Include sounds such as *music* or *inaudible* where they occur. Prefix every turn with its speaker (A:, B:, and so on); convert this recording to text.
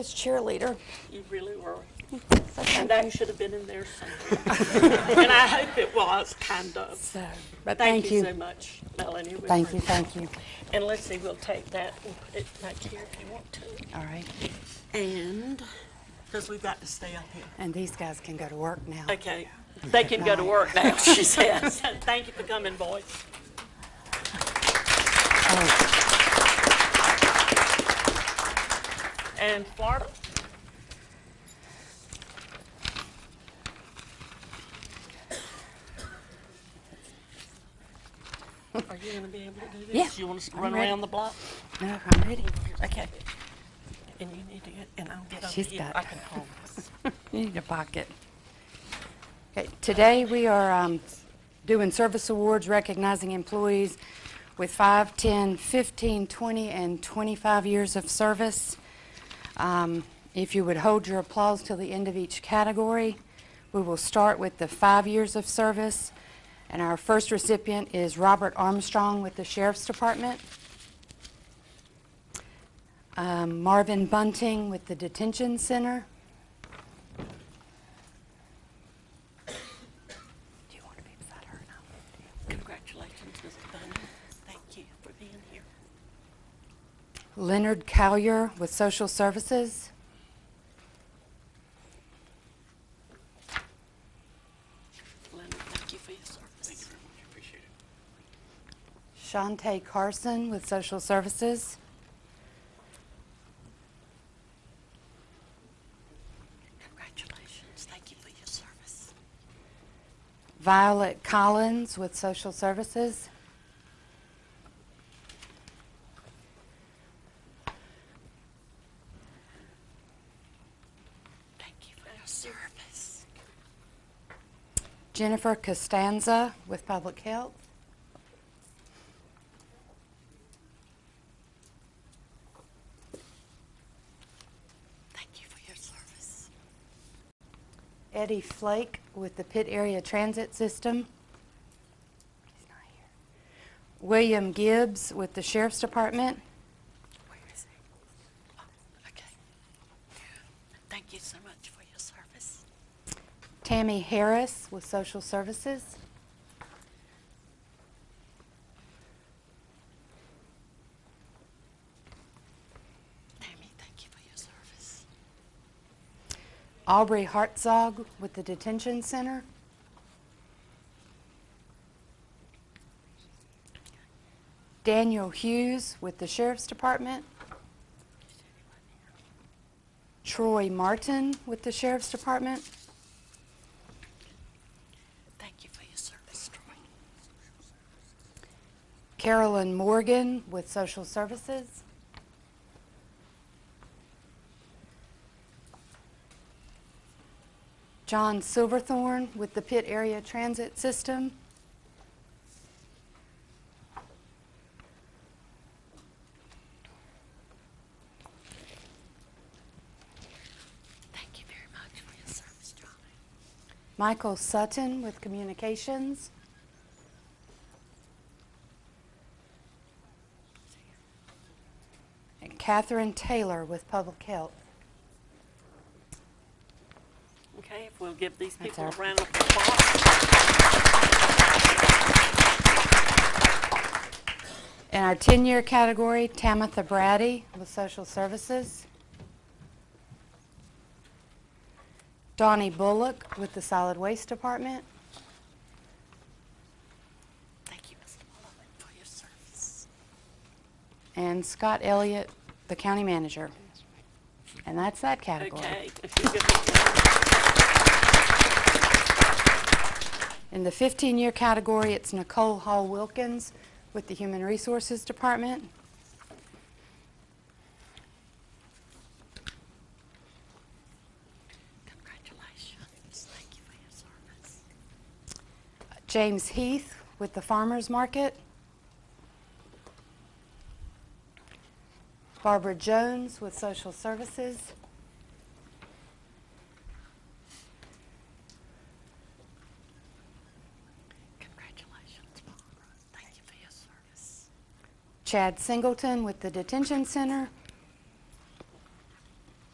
A: As cheerleader.
B: You really were.
A: Okay.
B: And I should have been in there
A: *laughs*
B: somewhere. And I hope it was, kind of.
A: So, but
B: Thank
A: thank
B: you
A: you.
B: so much, Melanie. We
A: Thank you,
B: appreciate
A: thank you.
B: it. And let's see, we'll take that and put it back here if you want to.
A: All right.
B: And, because we've got to stay up here.
A: And these guys can go to work now.
B: Okay, they can go to work now, she says. *laughs* Thank you for coming, boys. And Florida? Are you gonna be able to do this?
A: Yeah,
B: You want us to
A: I'm
B: run
A: ready.
B: around the block?
A: No, I'm ready.
B: Okay. And you need to get, and I'll get over
A: She's
B: here.
A: got
B: I
A: it.
B: can hold this.
A: You need a pocket. Okay, Today, we are um, doing service awards recognizing employees with 5, 10, 15, 20, and 25 years of service. Um, If you would hold your applause till the end of each category, we will start with the five years of service, and our first recipient is Robert Armstrong with the Sheriff's Department, um, Marvin Bunting with the Detention Center, Do you want to be beside her or not?
B: Congratulations, Mr. Bunny. Thank you for being here.
A: Leonard Cowyer with Social Services.
B: Leonard, thank you for your service.
A: Shantae Carson with Social Services.
B: Congratulations. Thank you for your service.
A: Violet Collins with Social Services.
B: Thank you for your service.
A: Jennifer Costanza with Public Health.
B: Thank you for your service.
A: Eddie Flake with the Pitt Area Transit System. He's not here. William Gibbs with the Sheriff's Department.
B: Where is he? Oh, okay. Thank you so much for your service.
A: Tammy Harris with Social Services.
B: Tammy, thank you for your service.
A: Aubrey Hartzog with the Detention Center. Daniel Hughes with the Sheriff's Department. Troy Martin with the Sheriff's Department.
B: Thank you for your service, Troy.
A: Carolyn Morgan with Social Services. John Silverthorne with the Pitt Area Transit System.
B: Thank you very much for your service, Johnny.
A: Michael Sutton with Communications. And Catherine Taylor with Public Health.
B: Okay, if we'll give these
A: That's
B: people
A: our-
B: a round of applause.
A: In our 10-year category, Tamitha Brady with Social Services. Donnie Bullock with the Solid Waste Department.
B: Thank you, Mr. Mullen, for your service.
A: And Scott Elliott, the County Manager. And that's that category.
B: Okay. if you give them-
A: In the 15-year category, it's Nicole Hall Wilkins with the Human Resources Department.
B: Congratulations. Thank you for your service.
A: James Heath with the Farmers Market. Barbara Jones with Social Services.
B: Congratulations, Barbara. Thank you for your service.
A: Chad Singleton with the Detention Center.